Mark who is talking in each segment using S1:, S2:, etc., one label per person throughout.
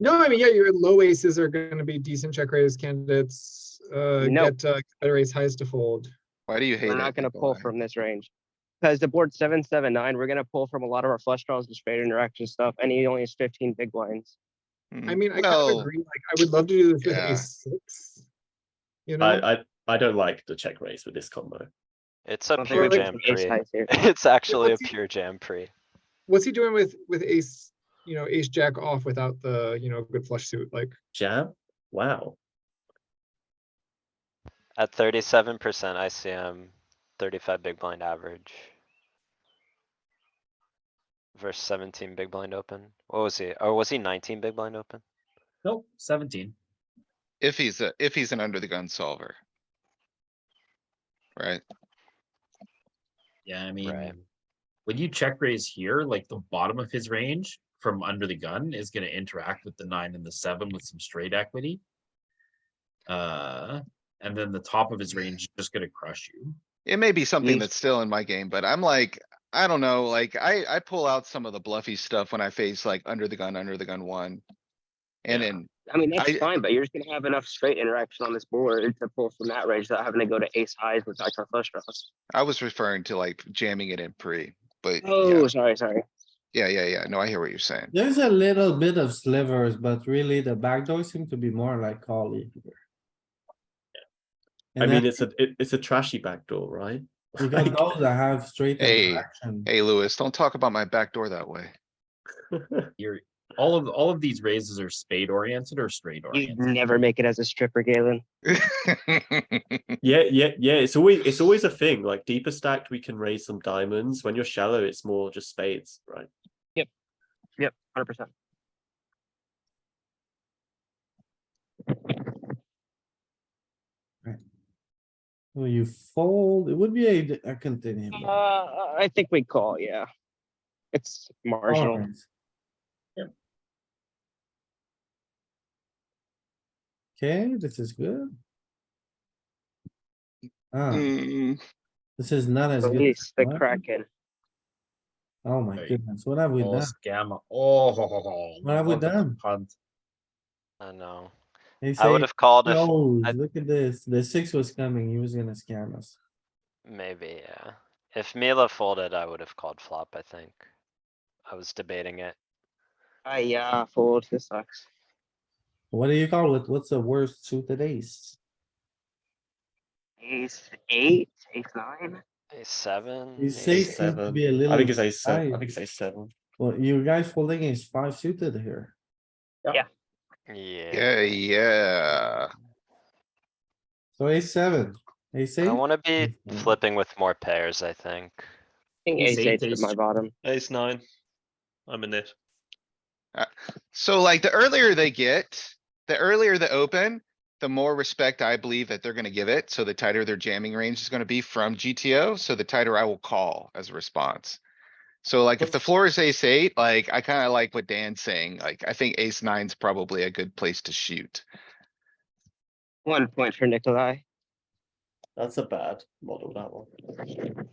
S1: No, I mean, yeah, your low aces are going to be decent check raise candidates. Uh,
S2: No.
S1: Get uh, better ace highs to fold.
S3: Why do you hate it?
S2: We're not gonna
S3: Go
S2: pull
S3: away.
S2: from this range. Because the board's seven, seven, nine, we're gonna pull from a lot of our flush draws and straight interaction stuff, and he only has fifteen big blinds.
S1: I mean, I kind of
S3: Mm, Well,
S1: agree. Like, I would love to do this with
S3: yeah.
S1: ace six. You know,
S4: I, I I don't like the check raise with this combo.
S5: It's
S2: I
S5: a
S2: don't
S5: pure
S2: think we
S1: it's
S2: have
S5: jam
S2: some ace
S5: pre.
S2: highs here.
S5: It's actually a
S1: let's see.
S5: pure jam pre.
S1: what's he doing with with ace? You know, ace jack off without the you know good flush suit. Like,
S4: Jam? Wow.
S5: At thirty-seven percent ICM, thirty-five big blind average. Versus seventeen big blind open. What was he? Or was he nineteen big blind open?
S6: Nope, seventeen.
S3: If he's a, if he's an under the gun solver. Right?
S6: Yeah, I mean,
S5: Right.
S6: when you check raise here, like the bottom of his range from under the gun is gonna interact with the nine and the seven with some straight equity. Uh, and then the top of his range is just gonna crush you.
S3: It may be something
S2: Least-
S3: that's still in my game, but I'm like, I don't know, like, I, I pull out some of the bluffy stuff when I face like under the gun, under the gun one. And
S6: Yeah.
S3: then,
S2: I mean, that's
S3: I-
S2: fine, but you're just gonna have enough straight interaction on this board to pull from that range without having to go to ace highs with like our flush draws.
S3: I was referring to like jamming it in pre, but yeah,
S2: Oh, sorry, sorry.
S3: yeah, yeah, yeah, no, I hear what you're saying.
S7: There's a little bit of slivers, but really the backdoor seem to be more like calling.
S4: I mean,
S7: And then
S4: it's a it, it's a trashy backdoor, right?
S7: you got those that have straight
S3: Hey,
S7: interaction.
S3: Hey, Louis, don't talk about my back door that way.
S6: You're, all of, all of these raises are spade oriented or straight
S2: You'd
S6: oriented.
S2: never make it as a stripper, Galen.
S4: yeah, yeah, yeah. It's always it's always a thing. Like deeper stacked, we can raise some diamonds. When you're shallow, it's more just spades, right?
S2: Hundred percent.
S7: So you fold, it would be a, a continuum.
S2: Uh, I think we call, yeah. It's marginal.
S7: Alright. Okay, this is good. Ah,
S3: Mm,
S7: this is not as good.
S2: Release
S7: as
S2: the
S7: one.
S2: Kraken.
S7: Oh my
S6: Right.
S7: goodness, what have we
S6: Oh,
S7: done?
S6: scam, oh. ho, ho, ho,
S7: What have we
S6: look at the
S7: done?
S6: punt.
S5: I know.
S7: They
S5: I
S7: say,
S5: would have called if,
S7: oh,
S5: I-
S7: look at this, the six was coming, he was gonna scam us.
S5: maybe, yeah. If Mila folded, I would have called flop, I think. I was debating it.
S2: Ah, yeah, fold, this sucks.
S7: What do you call it? What's the worst suited ace?
S2: Ace eight, ace nine.
S5: Ace seven?
S7: You
S5: ace
S7: say
S4: Ace
S7: seems to
S4: seven.
S7: be a
S4: I think
S7: little,
S4: it's a seven. I
S7: high.
S4: think it's a seven.
S7: well, you guys folding is five suited here.
S5: Yeah.
S3: Yeah, yeah.
S7: So ace seven, ace eight,
S5: I wanna be
S7: Mhm.
S5: flipping with more pairs, I think.
S2: I think ace
S6: Ace eight,
S2: eight is
S6: ace
S2: my
S6: two.
S2: bottom.
S4: Ace nine. I'm in it.
S3: So like the earlier they get, the earlier the open, the more respect I believe that they're gonna give it. So the tighter their jamming range is gonna be from GTO, so the tighter I will call as a response. So like if the floor is ace eight, like I kinda like what Dan's saying, like I think ace nine's probably a good place to shoot.
S2: One point for Nikolai.
S4: That's a bad model. That one.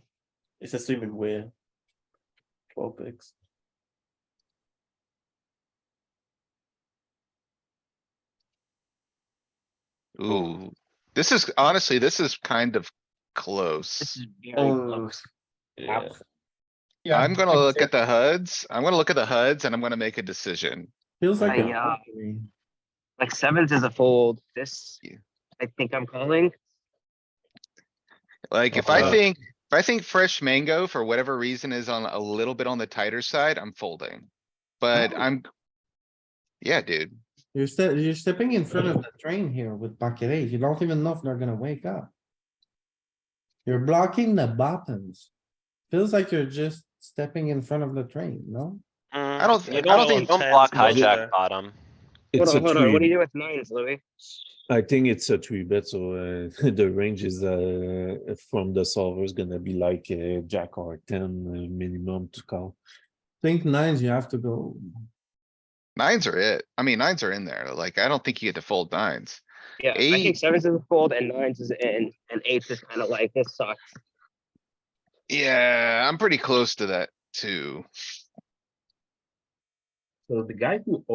S4: It's assuming we're twelve bigs.
S3: Ooh, this is honestly, this is kind of
S2: This
S3: close.
S2: is very close.
S4: Yeah.
S1: yeah,
S3: I'm gonna
S1: I'd
S3: look
S1: say-
S3: at the HUDs, I'm gonna look at the HUDs and I'm gonna make a decision.
S7: feels like. a
S2: Aye, aye.
S7: lottery.
S2: Like sevens is a fold. This,
S3: Yeah.
S2: I think I'm calling.
S3: Like, if I
S4: Uh-huh.
S3: think, if I think fresh mango for whatever reason is on a little bit on the tighter side, I'm folding. But I'm. Yeah, dude.
S7: You're ste- you're stepping in front of the train here with bucket eight. You don't even know if they're gonna wake up. You're blocking the bottoms. Feels like you're just stepping in front of the train, no?
S3: I don't,
S5: You
S3: I don't think,
S5: Don't block hijack bottom.
S2: Hold
S8: It's a
S2: on, hold on. What do
S8: three.
S2: you do with nines, Louis?
S8: I think it's a three bet, so uh, the range is uh, from the solver is gonna be like uh, jack or ten uh, minimum to call.
S7: Think nines, you have to go.
S3: nines are it. I mean, nines are in there. Like, I don't think you get to fold nines.
S2: Yeah, I
S3: Eight.
S2: think sevens is a fold and nines is in, and eights is kind of like, this sucks.
S3: Yeah, I'm pretty close to that too.
S6: So the guy who